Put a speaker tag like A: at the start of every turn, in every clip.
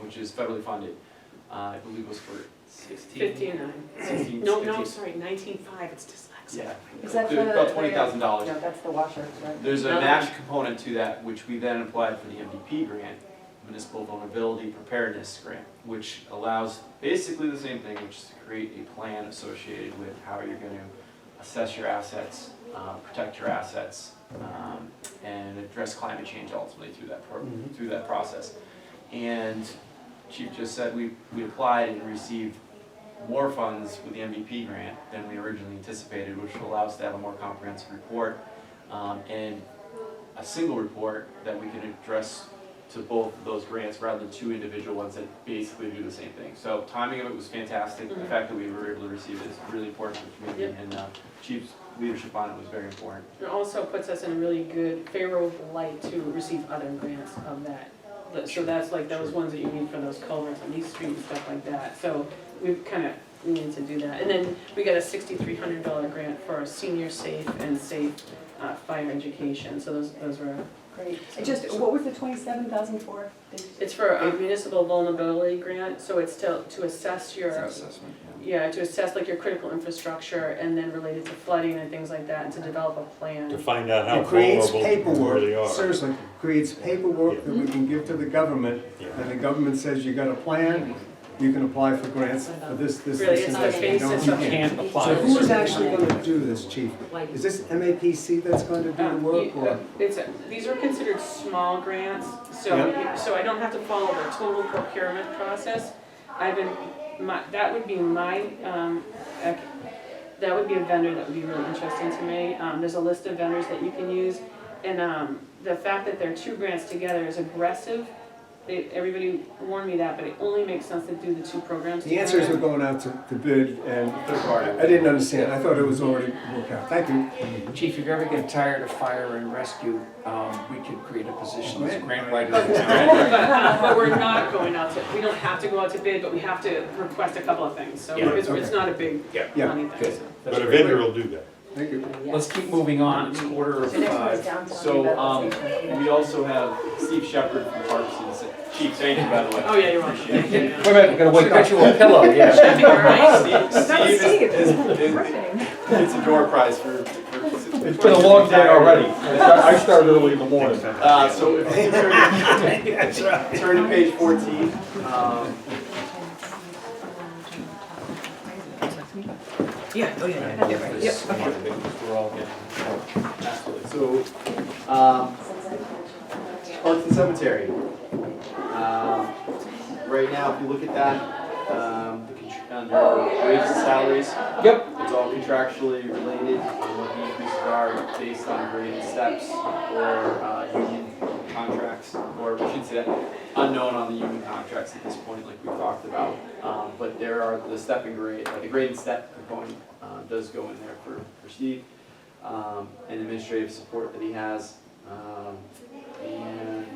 A: which is federally funded, uh, I believe was for sixteen.
B: Fifty-nine.
A: 16,
B: No, no,
A: 15.
B: sorry, nineteen-five, it's dyslexic.
A: Yeah.
C: Is that
A: There's
C: the-
A: About twenty thousand dollars.
C: No, that's the washer, right?
A: There's a
B: No.
A: match component to that, which we then applied for the MVP grant, Municipal Vulnerability Preparedness Grant, which allows basically the same thing, which is to create a plan associated with how you're gonna assess your assets, uh, protect your assets, um, and address climate change ultimately through that pro-
D: Mhm.
A: through that process. And Chief just said, we, we applied and received more funds with the MVP grant than we originally anticipated, which will allow us to have a more comprehensive report um, and a single report that we can address to both of those grants rather than two individual ones that basically do the same thing. So timing of it was fantastic. The
C: Mm-hmm.
B: Mhm.
A: fact that we were able to receive it is really important for the community and uh, Chief's leadership on it was very important.
B: It also puts us in a really good favorable light to receive other grants of that. But- So that's like those ones that you need for those culverts on East Street and stuff like that. So we've kind of needed to do that. And then we got a sixty-three hundred dollar grant for our senior safe and safe uh, fire education. So those, those were,
C: Great. And Just, what was the twenty-seven thousand for?
B: it's for a municipal vulnerability grant, so it's to, to assess your
E: assessment,
B: Yeah, to assess like your critical infrastructure and then related to flooding and things like that, and to develop a
F: to
B: plan.
F: find out how
D: It creates
F: vulnerable you really
D: paperwork,
F: are.
D: seriously, creates paperwork that we can give to the government,
F: Yeah.
D: and the government says, you got a plan, you can apply for grants for this, this,
B: Really,
D: this,
B: it's
D: and
B: the
D: this. You don't,
B: basis
D: you
B: of.
D: can't. So who is actually gonna do this, chief? Is this MAPC that's going to do the
B: Um,
D: work,
B: you- uh,
D: or?
B: It's, a- these are considered small grants, so,
D: Yeah.
B: you- so I don't have to follow the total procurement process. I've been, my, that would be my, um, ec- that would be a vendor that would be really interesting to me. Um, there's a list of vendors that you can use, and, um, the fact that there are two grants together is aggressive. They, everybody warned me that, but it only makes sense to do the two programs together.
D: The answer is we're going out to, to bid, and
A: Third party.
D: I didn't understand, I thought it was already worked out, thank you.
E: Chief, if you ever get tired of fire and rescue, um, we could create a position as grant writer.
B: But,
E: in town.
B: uh, but we're not going out to, we don't have to go out to bid, but we have to request a couple of things, so
E: Yeah.
B: it's, it's
D: Okay.
B: not a big
D: Yeah,
B: money thing, so.
F: But a vendor will do that.
D: Thank you.
E: Let's keep moving on, it's quarter of
C: The next one is
E: five.
C: downtown.
A: So, um,
C: revitalization.
A: we also have Steve Shepherd from Parks and, Sa- Chief, thank you, by the way.
B: Oh, yeah, you're on.
A: Appreciate it.
E: Wait a minute, we gotta wake up. you a pillow, yeah.
A: Steve,
C: That was
A: Steve
C: Steve.
A: is, is- is-
C: Ripping.
A: it's a door prize for. for-
G: It's been a long day already. I started early in the morning.
A: Uh, so if you turn, turn to page fourteen, um, absolutely, so, um, Parks and Cemetery. Um, right now, if you look at that, um, the contr- under wages and salaries,
G: Yep,
A: It's all contractually related, and what the increases are based on graded steps or uh, union contracts, or we should say that unknown on the union contracts at this point, like we talked about. Um, But there are the step and grade, uh, the graded step component uh, does go in there for for Steve, um, and administrative support that he has. Um, And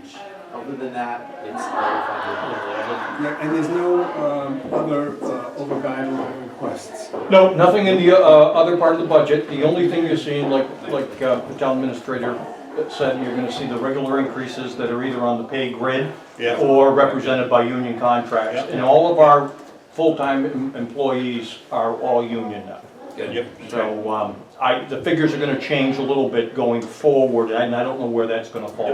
A: other than that, it's all funded.
D: Yeah, and there's no, um, other, uh, over guideline requests.
G: no, nothing in the uh, other part of the budget. The only thing you're seeing, like, like uh, the town administrator said, you're gonna see the regular increases that are either on the pay grid
F: Yeah,
G: or represented by union contracts.
F: Yeah.
G: And all of our full-time em- employees are all union now.
F: yep.
G: So, um, I, the figures are gonna change a little bit going forward, and I don't know where that's gonna fall.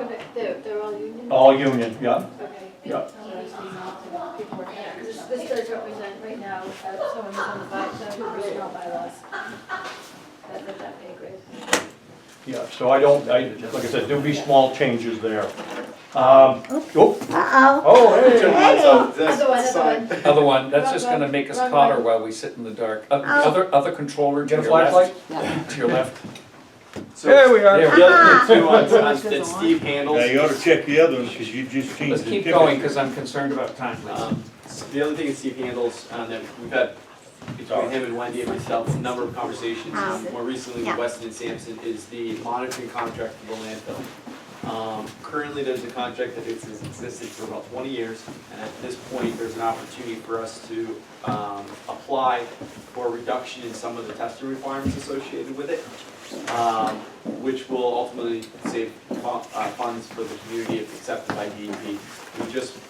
H: Okay, They're, Oh, they're all union?
G: All union, yeah,
H: Okay.
G: yeah.
H: This, this does represent right now, uh, someone who's on the by, the original bylaws. That, that, that pay grade.
G: Yeah, so I don't, I, like I said, there'll be small changes there. Um, oh. Oh, hey.
H: Other one, other one.
E: Other one, that's just gonna make us hotter while we sit in the dark. Uh, the Other, other controller to
G: Get a
E: your left,
G: flashlight?
E: to your left.
A: So
G: There we
E: There
G: are.
E: we go.
A: Two on, on- that Steve handles.
F: Now, you ought to check the other one, because you just changed
E: Let's
F: the
E: keep
F: ticket.
E: going, because I'm concerned about time, please.
A: Um, so The other thing is Steve handles, um, that we've had between him and Wendy and myself, a number of conversations, Um, more recently with Weston and Sampson, is the monitoring contract for the landfill. Um, Currently, there's a contract that has existed for about twenty years, and at this point, there's an opportunity for us to um, apply for a reduction in some of the testing requirements associated with it, um, which will ultimately save fu- uh, funds for the community if accepted by DEP. E We just